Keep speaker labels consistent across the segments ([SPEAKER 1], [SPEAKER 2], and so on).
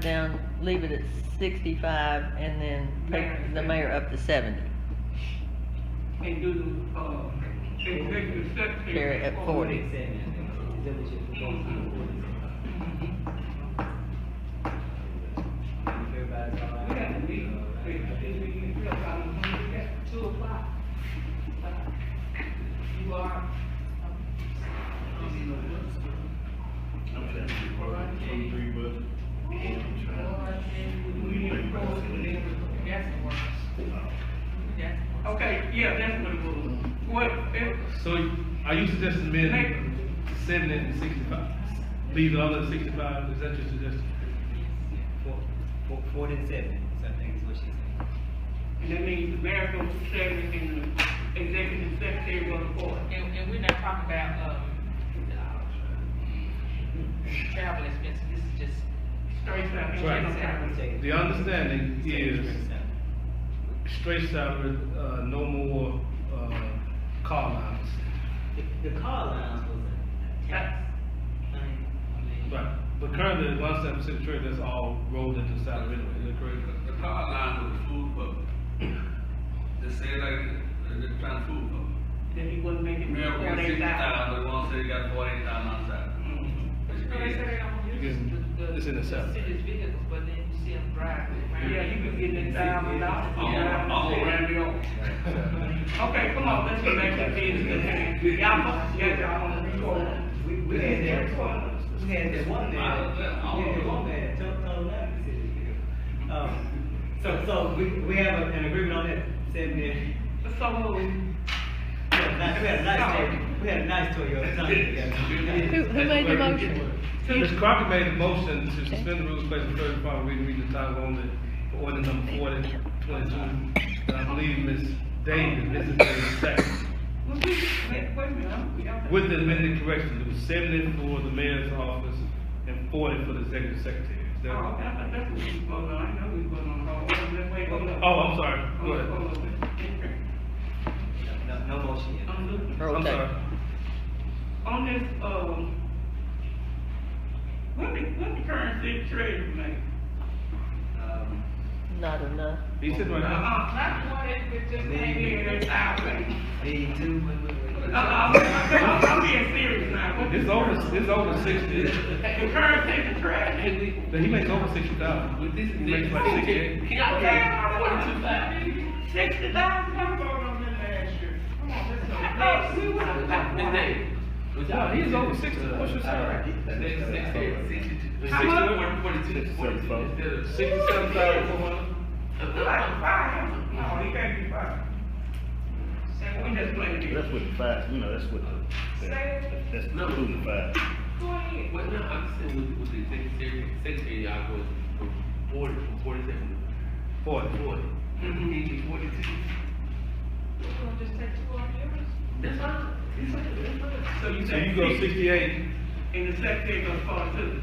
[SPEAKER 1] down, leave it at sixty-five and then take the mayor up to seventy.
[SPEAKER 2] and do, uh, executive session.
[SPEAKER 1] Carry at forty.
[SPEAKER 2] We have to meet, we have to meet, we have to meet at two o'clock. You are.
[SPEAKER 3] I'm trying to work on twenty-three budget. I'm trying
[SPEAKER 2] We need to go to the, that's the word. That's the word. Okay, yeah, that's what it was. What, it,
[SPEAKER 4] So are you suggesting amend seventy and sixty-five? Leave the other sixty-five, is that your suggestion?
[SPEAKER 5] Four, four, four and seven, so I think is what she's saying.
[SPEAKER 2] and that means the mayor goes to seven and the executive secretary goes to four.
[SPEAKER 6] And, and we're not talking about, um, uh, travel expenses, this is just
[SPEAKER 2] Straight up.
[SPEAKER 6] Right.
[SPEAKER 4] The understanding is straight salary, uh, no more, uh, car allowance.
[SPEAKER 5] The, the car allowance was a tax thing. I mean,
[SPEAKER 4] Right, but currently, the one seven percent trade, that's all rolled into salary anyway, is that correct?
[SPEAKER 7] The car line was food public. They say like, they're trying to food public.
[SPEAKER 2] That he wasn't making
[SPEAKER 7] Mayor, we got
[SPEAKER 2] forty
[SPEAKER 7] sixty
[SPEAKER 2] thousand.
[SPEAKER 7] thousand, but one said he got forty thousand on side. Which
[SPEAKER 6] No, they say they
[SPEAKER 7] means,
[SPEAKER 6] don't
[SPEAKER 4] It's-
[SPEAKER 6] use the, the.
[SPEAKER 4] it's in the salary.
[SPEAKER 6] city's vehicles, but then you see them driving around.
[SPEAKER 2] Yeah, you could get that thousand dollars.
[SPEAKER 7] I'm,
[SPEAKER 4] Oh,
[SPEAKER 7] I'm gonna ram you up.
[SPEAKER 2] Okay, come on, let's get back to business. Y'all must get y'all on the record.
[SPEAKER 5] We, we had that one, we had that one
[SPEAKER 7] I don't
[SPEAKER 5] man,
[SPEAKER 7] know.
[SPEAKER 5] we had that one man, tell, tell him that. Um, so, so we, we have a- an agreement on that, seven,
[SPEAKER 2] So uh, moved.
[SPEAKER 5] we had a nice, we had a nice, Toy- we had a nice Toyota Tundra.
[SPEAKER 8] Who, who made the motion?
[SPEAKER 4] Mr. Crockett made the motion to suspend the rules, place the third and final reading, read the title only, for ordinance number forty, twenty-two. And I believe Ms. Davis, Mrs. Davis, second.
[SPEAKER 2] Well, we, wait, wait a minute, I'm- we don't-
[SPEAKER 4] With the amended corrections, it was seventy for the mayor's office and forty for the executive secretary. Is
[SPEAKER 2] Oh,
[SPEAKER 4] that-
[SPEAKER 2] okay, I thought that's what we was voting on, I know we was voting on the whole, let's wait, hold up.
[SPEAKER 4] Oh, I'm sorry, go
[SPEAKER 2] Hold up,
[SPEAKER 4] ahead.
[SPEAKER 2] hold up. Okay.
[SPEAKER 5] No, no motion yet.
[SPEAKER 2] I'm looking.
[SPEAKER 1] Oh,
[SPEAKER 4] I'm sorry.
[SPEAKER 2] On this, um, what the, what the current city treasurer make?
[SPEAKER 5] Um,
[SPEAKER 1] Not enough.
[SPEAKER 4] He's sitting right
[SPEAKER 2] Uh-uh,
[SPEAKER 4] now.
[SPEAKER 2] not the one that was just hanging in there, thousand.
[SPEAKER 5] D two, what- what- what-
[SPEAKER 2] Uh-uh, I'm, I'm, I'm being serious now. What the-
[SPEAKER 4] It's over, it's over sixty.
[SPEAKER 2] The current city treasurer.
[SPEAKER 4] He makes over sixty thousand.
[SPEAKER 7] With this,
[SPEAKER 4] He makes like sixty-eight.
[SPEAKER 2] Sixty thousand, I'm voting on that last year. Come on, let's go. Let's see what I'm talking
[SPEAKER 7] Miss
[SPEAKER 2] about.
[SPEAKER 7] Davis.
[SPEAKER 4] No, he's over sixty. What's your salary?
[SPEAKER 7] Sixty, sixty, sixty.
[SPEAKER 2] How much?
[SPEAKER 7] Forty-two, forty-two, instead of six.
[SPEAKER 4] Sixty-seven thousand four hundred.
[SPEAKER 2] It's like five. No, he can't be five. And we just played it.
[SPEAKER 3] That's with the five, you know, that's with the, that's including the five.
[SPEAKER 7] Well, no, I'm just saying with, with the secretary, secretary, y'all goes from forty, from forty-seven
[SPEAKER 4] Forty.
[SPEAKER 7] to forty. He did forty-two. That's fine. It's fine. It's fine.
[SPEAKER 2] So you
[SPEAKER 4] So you
[SPEAKER 2] say
[SPEAKER 4] go
[SPEAKER 2] six,
[SPEAKER 4] sixty-eight.
[SPEAKER 2] and the secretary goes forty-two.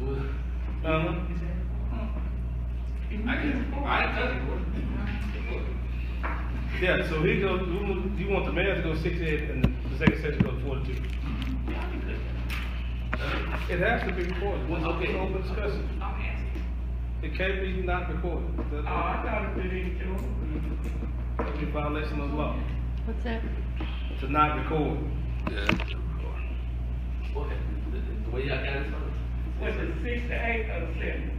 [SPEAKER 7] Well,
[SPEAKER 4] Uh-huh.
[SPEAKER 7] I can, I can tell you.
[SPEAKER 4] Yeah, so he goes, you want- you want the mayor to go sixty-eight and the second section go forty-two. It has to be recorded, it's
[SPEAKER 7] Well, okay.
[SPEAKER 4] an open discussion.
[SPEAKER 2] I'm asking.
[SPEAKER 4] It can't be not recorded.
[SPEAKER 2] Oh, I
[SPEAKER 4] Ah,
[SPEAKER 2] thought it did too.
[SPEAKER 4] That'd be a violation of law,
[SPEAKER 1] What's that?
[SPEAKER 4] to not record.
[SPEAKER 7] Yeah. What happened? The- The way y'all got it from?
[SPEAKER 2] Was it six to eight or seven?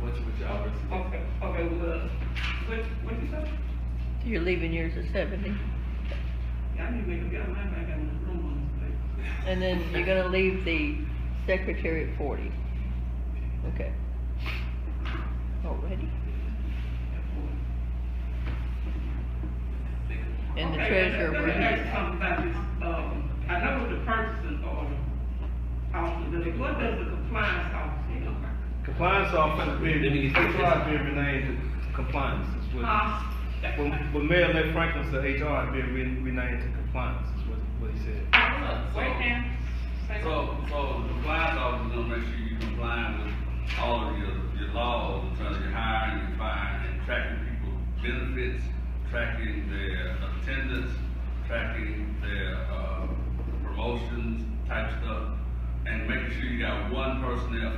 [SPEAKER 7] What's with y'all versus?
[SPEAKER 2] Okay, okay, well, what, what you say?
[SPEAKER 1] You're leaving yours at seventy.
[SPEAKER 2] I need to make up my mind, I got my room on this place.
[SPEAKER 1] And then you're gonna leave the secretary at forty. Okay. Already. And the
[SPEAKER 2] Okay,
[SPEAKER 1] treasurer
[SPEAKER 2] let-
[SPEAKER 1] will
[SPEAKER 2] Let me
[SPEAKER 1] be.
[SPEAKER 2] ask something about this, um, I know the purchasing order, officer, but what does the compliance officer do?
[SPEAKER 4] Compliance officer,
[SPEAKER 7] Let me
[SPEAKER 4] being,
[SPEAKER 7] get this.
[SPEAKER 4] HR being renamed to compliance is what.
[SPEAKER 2] Huh?
[SPEAKER 4] When, when Mayor Lake Franklin said HR being re- renamed to compliance is what, what he said.
[SPEAKER 2] Uh, Wait now. Say what?
[SPEAKER 7] So, so the compliance officer gonna make sure you complying with all of your, your laws in terms of your hiring, your firing, and tracking people's benefits, tracking their attendance, tracking their, uh, promotions type stuff. and making sure you got one person there